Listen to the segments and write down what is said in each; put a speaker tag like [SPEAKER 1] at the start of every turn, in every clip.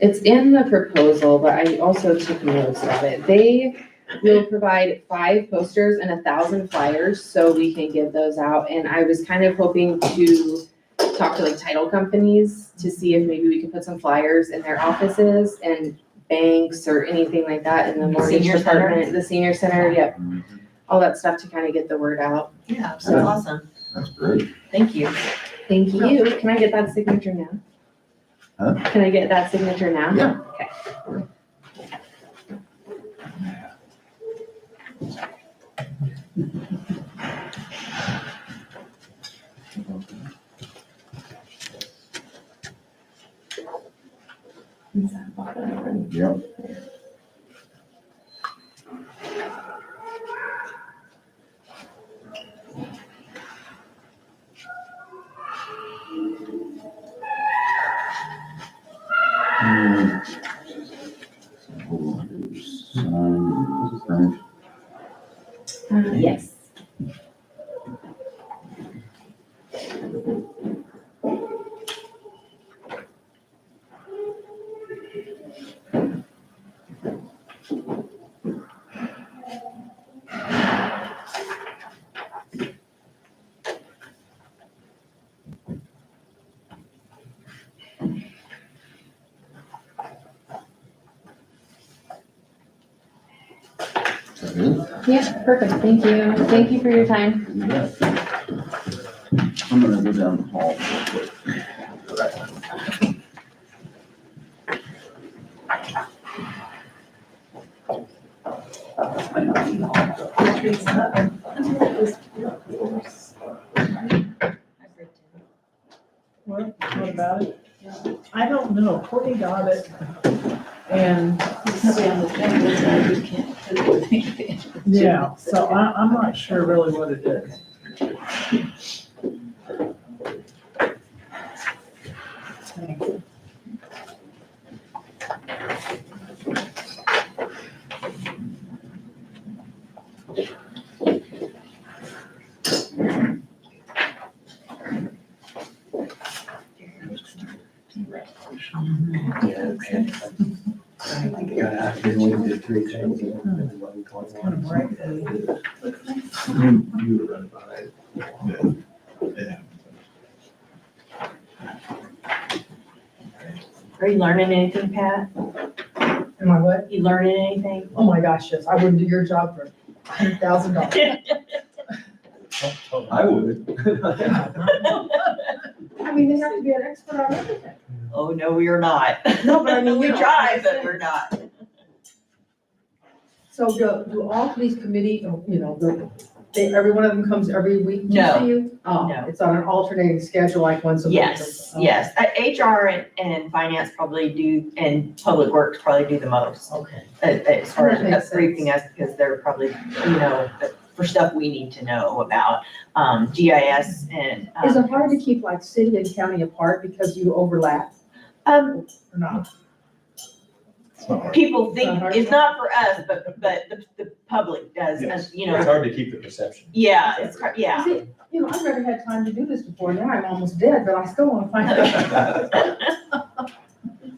[SPEAKER 1] It's in the proposal, but I also took notes of it. They will provide five posters and a thousand flyers, so we can give those out. And I was kind of hoping to talk to like title companies to see if maybe we could put some flyers in their offices and banks or anything like that in the mortgage
[SPEAKER 2] Senior center?
[SPEAKER 1] department, the senior center, yep. All that stuff to kind of get the word out.
[SPEAKER 2] Yeah, that's awesome.
[SPEAKER 3] That's great.
[SPEAKER 2] Thank you.
[SPEAKER 1] Thank you. Oh, Can I get that signature now?
[SPEAKER 3] Huh?
[SPEAKER 1] Can I get that signature now?
[SPEAKER 3] Yeah.
[SPEAKER 1] Okay. Is that bottom one?
[SPEAKER 3] Yep. Hmm. Hold on, there's sign, right?
[SPEAKER 1] Uh, Yes.
[SPEAKER 3] Is that it?
[SPEAKER 1] Yeah, perfect. Thank you. Thank you for your time.
[SPEAKER 3] You bet. I'm gonna go down the hall real quick.
[SPEAKER 4] What, what about it? I don't know, Courtney got it. And, yeah, so I, I'm not sure really what it is. Thank you.
[SPEAKER 5] Got out here and we did three things. and then we went to one.
[SPEAKER 4] Kind of break it.
[SPEAKER 5] You you were right about it.
[SPEAKER 2] Are you learning anything, Pat?
[SPEAKER 4] Am I what?
[SPEAKER 2] You learning anything?
[SPEAKER 4] Oh my gosh, yes, I wouldn't do your job for a hundred thousand dollars.
[SPEAKER 5] I would.
[SPEAKER 4] I mean, they have to be an expert on everything.
[SPEAKER 2] Oh, no, we are not.
[SPEAKER 4] No, but I mean,
[SPEAKER 2] We
[SPEAKER 4] you know,
[SPEAKER 2] try, but we're not.
[SPEAKER 4] So do, do all these committee, you know, the- they, every one of them comes every week to
[SPEAKER 2] No.
[SPEAKER 4] see you? Oh,
[SPEAKER 2] No.
[SPEAKER 4] It's on an alternating schedule, like once a week. or
[SPEAKER 2] Yes,
[SPEAKER 4] something.
[SPEAKER 2] yes. Uh, HR and, and finance probably do, and public works probably do the most.
[SPEAKER 4] Okay.
[SPEAKER 2] uh, As far
[SPEAKER 4] That makes
[SPEAKER 2] as briefing
[SPEAKER 4] sense.
[SPEAKER 2] us, because they're probably, you know, for stuff we need to know about, um, GIS and. um,
[SPEAKER 6] Is it hard to keep like city and county apart because you overlap?
[SPEAKER 2] Um,
[SPEAKER 4] Or not?
[SPEAKER 2] people
[SPEAKER 4] Not
[SPEAKER 2] think,
[SPEAKER 4] hard.
[SPEAKER 2] it's not for us, but, but the, the public does, and, you know,
[SPEAKER 5] It's hard to keep the perception.
[SPEAKER 2] yeah, it's, cr- yeah.
[SPEAKER 6] See, you know, I've never had time to do this before, now I'm almost dead, but I still wanna find out.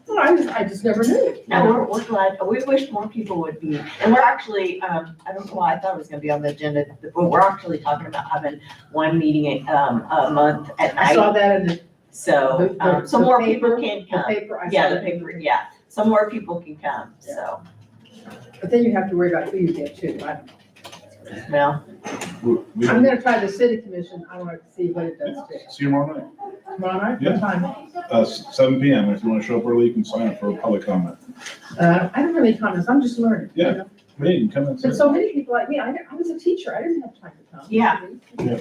[SPEAKER 6] Well, I just, I just never knew.
[SPEAKER 2] No, we're, we're glad, we wish more people would be, and we're actually, um, I don't know why I thought it was gonna be on the agenda, but we're actually talking about having one meeting, um, a month at
[SPEAKER 4] I saw
[SPEAKER 2] night,
[SPEAKER 4] that in the,
[SPEAKER 2] so,
[SPEAKER 4] the-
[SPEAKER 2] um,
[SPEAKER 4] the-
[SPEAKER 2] so
[SPEAKER 4] the
[SPEAKER 2] more people
[SPEAKER 4] paper-
[SPEAKER 2] can
[SPEAKER 4] the
[SPEAKER 2] come.
[SPEAKER 4] paper, I saw
[SPEAKER 2] Yeah, the
[SPEAKER 4] that.
[SPEAKER 2] paper, yeah, so more people can come, so,
[SPEAKER 4] But then you have to worry about who you get too. I-
[SPEAKER 2] well,
[SPEAKER 4] I'm gonna try the city commission, I wanna see what it does to.
[SPEAKER 7] See you tomorrow night,
[SPEAKER 4] Tomorrow night,
[SPEAKER 7] Yeah.
[SPEAKER 4] what time? Uh,
[SPEAKER 7] uh, s- seven P M. If you want to show up early, you can sign up for a public comment.
[SPEAKER 4] Uh, I don't have any comments, I'm just learning. you
[SPEAKER 7] Yeah.
[SPEAKER 4] know?
[SPEAKER 7] Hey, you can come
[SPEAKER 4] But
[SPEAKER 7] and sit.
[SPEAKER 4] so many people like me, I, didn't- I was a teacher, I didn't have time to come.
[SPEAKER 2] Yeah.
[SPEAKER 7] Yeah.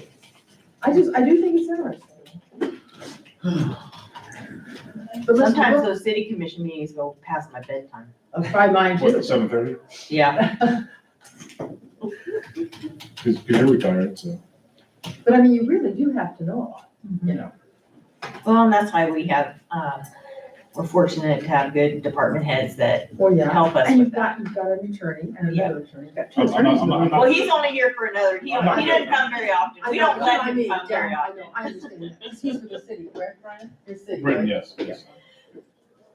[SPEAKER 4] I just, I do think it's interesting. But let's,
[SPEAKER 2] sometimes
[SPEAKER 4] go-
[SPEAKER 2] those city commission meetings go past my bedtime,
[SPEAKER 4] I'll try mine
[SPEAKER 7] What,
[SPEAKER 4] too.
[SPEAKER 7] at seven thirty?
[SPEAKER 2] yeah.
[SPEAKER 7] Because you're retired, so.
[SPEAKER 4] But I mean, you really do have to know a lot, you know?
[SPEAKER 2] Well, and that's why we have, um, we're fortunate to have good department heads that
[SPEAKER 4] Well, yeah.
[SPEAKER 2] help us
[SPEAKER 4] And
[SPEAKER 2] with
[SPEAKER 4] you've
[SPEAKER 2] that.
[SPEAKER 4] got, you've got an attorney and
[SPEAKER 2] Oh, Yeah.
[SPEAKER 4] another attorney, you've got two
[SPEAKER 7] I'm- I'm not-
[SPEAKER 4] attorneys.
[SPEAKER 7] I'm not- I'm not-
[SPEAKER 2] Well, he's only here for another, he,
[SPEAKER 7] I'm not-
[SPEAKER 2] he doesn't come very often. We don't let him come very
[SPEAKER 4] I
[SPEAKER 2] often.
[SPEAKER 4] know, I understand that, 'Cause he's with the city, correct, Brian? Your city, right?
[SPEAKER 7] Brittany, yes.
[SPEAKER 4] Yeah.